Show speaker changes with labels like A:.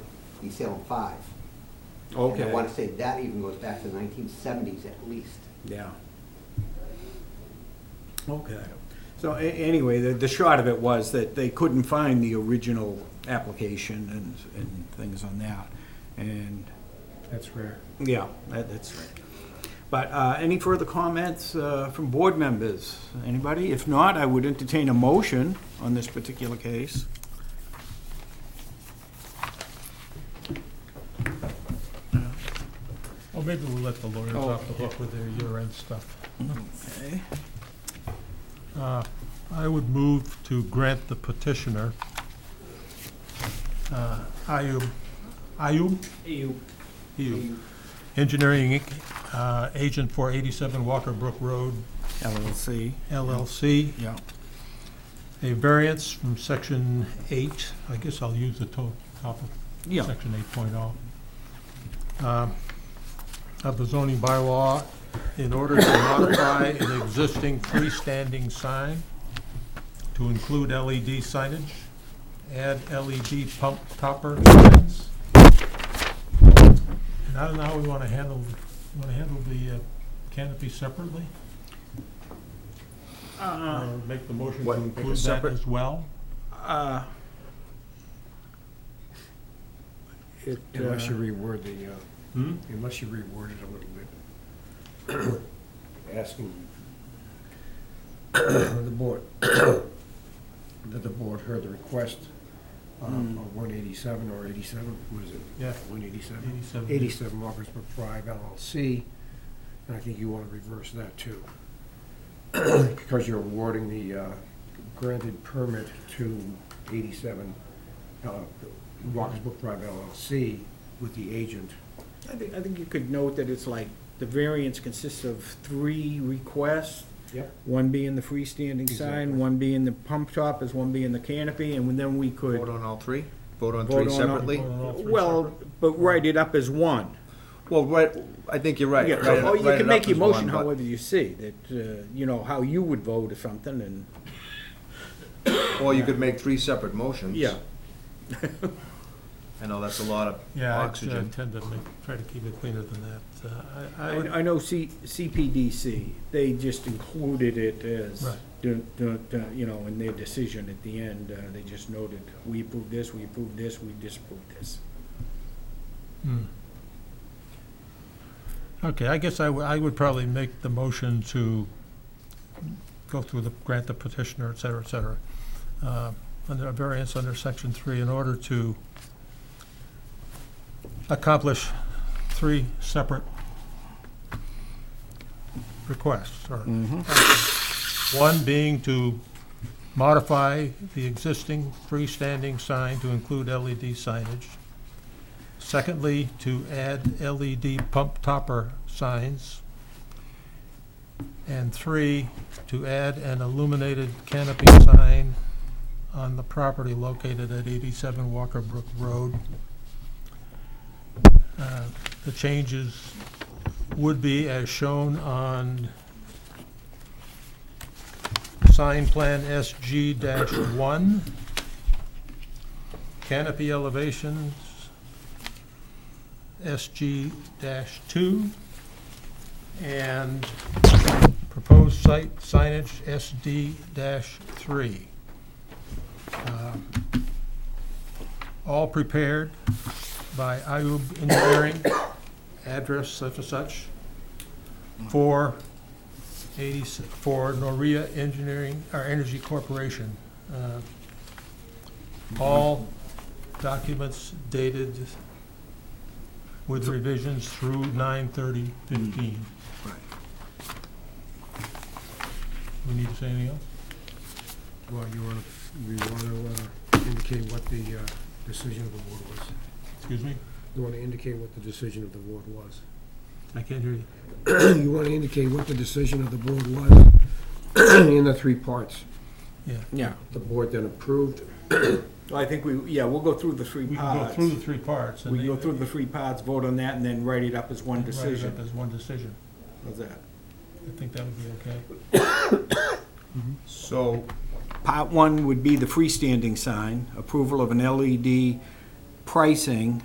A: you sell them five. And I
B: Okay,
A: want to say that even goes back to the nineteen seventies at least.
B: yeah. Okay. So a- anyway, the, the short of it was that they couldn't find the original application and, and things on that. And,
C: That's rare.
B: yeah, that, that's right. But, uh, any further comments, uh, from board members? Anybody? If not, I would entertain a motion on this particular case.
C: Well, maybe we'll let the lawyers
B: Oh.
C: off the hook with their year-end stuff.
B: Okay.
C: Uh, I would move to grant the petitioner, uh, Ayub, Ayub? Ayub. Engineering Inc., uh, agent for 87 Walker Brook Road
B: LLC,
C: LLC,
B: yeah.
C: a variance from section 8, I guess I'll use the to- top of
B: Yeah,
C: Section 8.0, um, of the zoning bylaw in order to modify an existing freestanding sign to include LED signage, add LED pump topper signs. And I don't know how we want to handle, want to handle the uh, canopy separately? Or make the motion to
B: What, make it
C: include that
B: separate?
C: as well?
B: uh. It,
D: Unless
B: uh,
D: you reword the, uh,
C: Hmm?
D: unless you reword it a little bit. Asking the board, that the board heard the request um, of 187 or 87, what is it?
C: Yeah.
D: 187?
C: 87.
D: 87 Walker's Brook Drive LLC, and I think you want to reverse that too. Because you're awarding the uh, granted permit to 87 uh, Walker's Brook Drive LLC with the agent.
B: I think, I think you could note that it's like, the variance consists of three requests,
D: Yep.
B: one being the freestanding
D: Exactly.
B: sign, one being the pump top, is one being the canopy, and then we could.
E: Vote on all three? Vote on
B: Vote
E: three
B: on all-
E: separately?
C: Vote on all three
B: Well, but write it up as one.
E: Well, right, I think you're right.
B: Yeah,
E: Write it-
B: Or you
E: write
B: can
E: it
B: make
E: up
B: your
E: as one,
B: motion
E: but-
B: however you see, that, uh, you know, how you would vote or something, and,
E: Or you could make three separate motions.
B: yeah.
E: I know that's a lot of
C: Yeah, I
E: oxygen.
C: tend to make, try to keep it cleaner than that. Uh, I, I would,
B: I, I know C, CPDC, they just included it as,
C: Right.
B: dun- dun- dun, you know, in their decision at the end, uh, they just noted, we approve this, we approve this, we disapprove this.
C: Hmm. Okay, I guess I would, I would probably make the motion to go through the, grant the petitioner, et cetera, et cetera, uh, under a variance under section three in order to accomplish three separate requests, or One being to modify the existing freestanding sign to include LED signage. Secondly, to add LED pump topper signs. And three, to add an illuminated canopy sign on the property located at 87 Walker Brook Road. Uh, The changes would be as shown on sign plan SG-1, canopy elevations SG-2, and proposed site signage SD-3. Um, All prepared by Ayub Engineering, address such and such, for 80, for Noria Engineering, or Energy Corporation. Uh, All documents dated with revisions through 9/30/15.
E: Right.
C: We need to say anything else?
D: Well, you want to, you want to indicate what the uh, decision of the board was.
C: Excuse me?
D: You want to indicate what the decision of the board was.
C: I can't hear you.
D: You want to indicate what the decision of the board was in the three parts.
B: Yeah,
D: The board then approved.
B: Well, I think we, yeah, we'll go through the three
C: We can go
B: parts.
C: Uh, through the three parts. and
B: We can go
C: they-
B: through the three parts, vote on that, and then write it up as one
C: write it up
B: decision.
C: as one decision.
B: How's that?
C: I think that would be okay.
E: So,
B: Part one would be the freestanding sign, approval of an LED pricing